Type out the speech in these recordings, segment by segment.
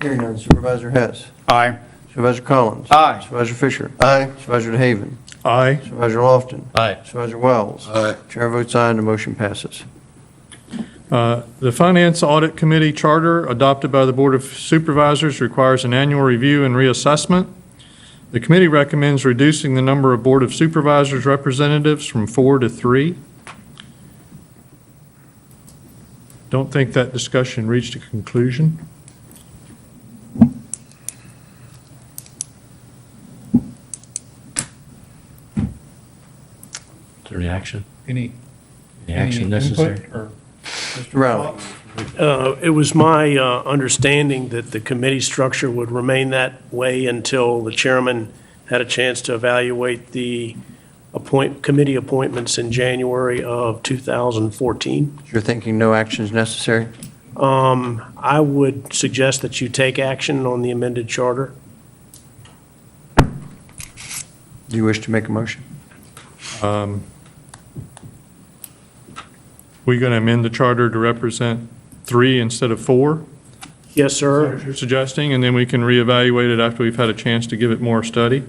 Hearing none, Supervisor Hess. Aye. Supervisor Collins. Aye. Supervisor Fisher. Aye. Supervisor DeHaven. Aye. Supervisor Lofton. Aye. Supervisor Wiles. Aye. Chair votes aye and the motion passes. Uh, The Finance Audit Committee Charter adopted by the Board of Supervisors requires an annual review and reassessment. The committee recommends reducing the number of Board of Supervisors representatives from four to three. Don't think that discussion reached a conclusion. Is there any action? Any, Any any action necessary? input or Mr. Riley. Uh, It was my uh, understanding that the committee structure would remain that way until the chairman had a chance to evaluate the appoint, committee appointments in January of 2014. You're thinking no action is necessary? Um, I would suggest that you take action on the amended charter. Do you wish to make a motion? Um, We going to amend the charter to represent three instead of four? Yes, You're sir. suggesting, and then we can reevaluate it after we've had a chance to give it more study?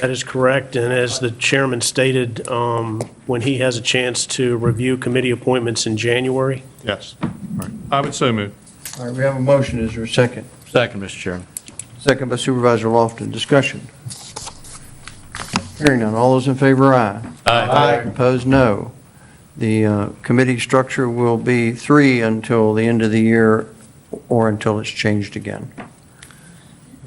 That is correct. And as the chairman stated, um, when he has a chance to review committee appointments in January, Yes. All right. I would so move. All right, we have a motion. Is there a second? Second, Mr. Chairman. Second by Supervisor Lofton. Discussion. Hearing none. All those in favor, aye. Opposed, no. The uh, committee structure will be three until the end of the year or until it's changed again.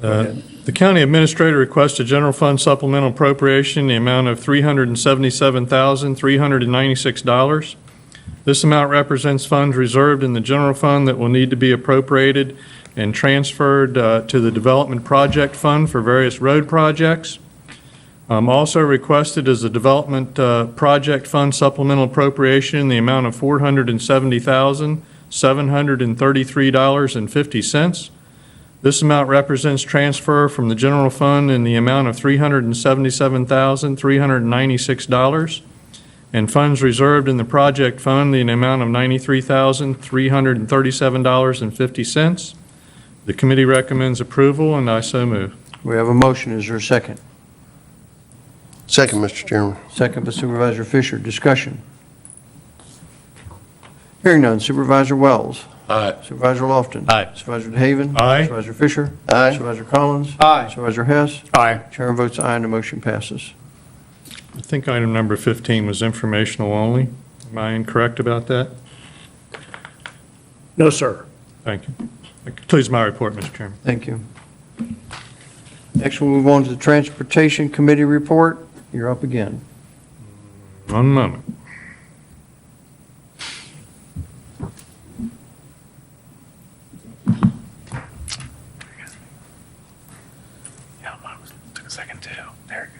Uh, The county administrator requests a general fund supplemental appropriation in the amount of $377,396. This amount represents funds reserved in the general fund that will need to be appropriated and transferred uh, to the Development Project Fund for various road projects. Um, Also requested is a Development uh, Project Fund supplemental appropriation in the amount of $470,733.50. This amount represents transfer from the general fund in the amount of $377,396 and funds reserved in the project fund in the amount of $93,337.50. The committee recommends approval, and I so move. We have a motion. Is there a second? Second, Mr. Chairman. Second by Supervisor Fisher. Discussion. Hearing none. Supervisor Wells. Aye. Supervisor Lofton. Aye. Supervisor DeHaven. Aye. Supervisor Fisher. Aye. Supervisor Collins. Aye. Supervisor Hess. Aye. Chair votes aye and the motion passes. I think item number 15 was informational only. Am I incorrect about that? no, sir. Thank you. That concludes my report, Mr. Chairman. Thank you. Next, we'll move on to the Transportation Committee report. You're up again. One moment. Yeah, mine was, took a second too. There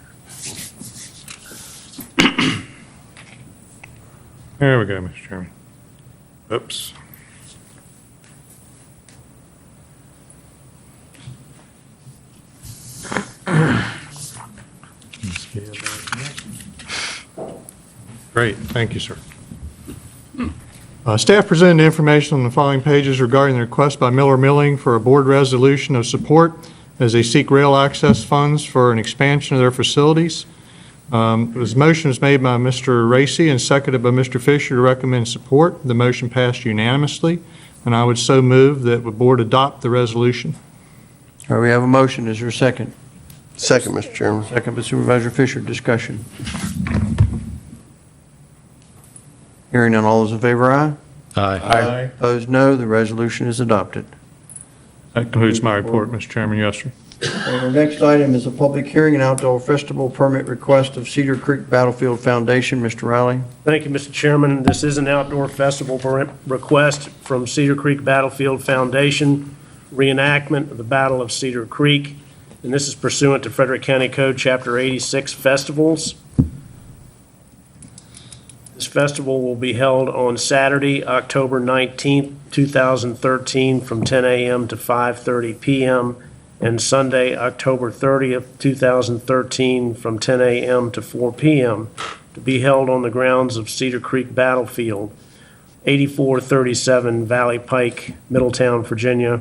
There we go, Mr. Chairman. Oops. Great, thank you, sir. Uh, Staff presented information on the following pages regarding the request by Miller Milling for a board resolution of support as they seek rail access funds for an expansion of their facilities. Um, It was motion was made by Mr. Racy and seconded by Mr. Fisher to recommend support. The motion passed unanimously, and I would so move that the board adopt the resolution. All right, we have a motion. Is there a second? Second, Mr. Chairman. Second by Supervisor Fisher. Discussion. Hearing none. All those in favor, aye. Aye. Aye. Opposed, no. The resolution is adopted. That concludes my report, Mr. Chairman. Yes, sir. And our next item is a public hearing and outdoor festival permit request of Cedar Creek Battlefield Foundation. Mr. Riley? Thank you, Mr. Chairman. This is an outdoor festival per- request from Cedar Creek Battlefield Foundation, reenactment of the Battle of Cedar Creek, and this is pursuant to Frederick County Code, Chapter 86, Festivals. This festival will be held on Saturday, October 19th, 2013, from 10 a.m. to 5:30 p.m., and Sunday, October 30th, 2013, from 10 a.m. to 4 p.m to be held on the grounds of Cedar Creek Battlefield, 8437 Valley Pike, Middletown, Virginia,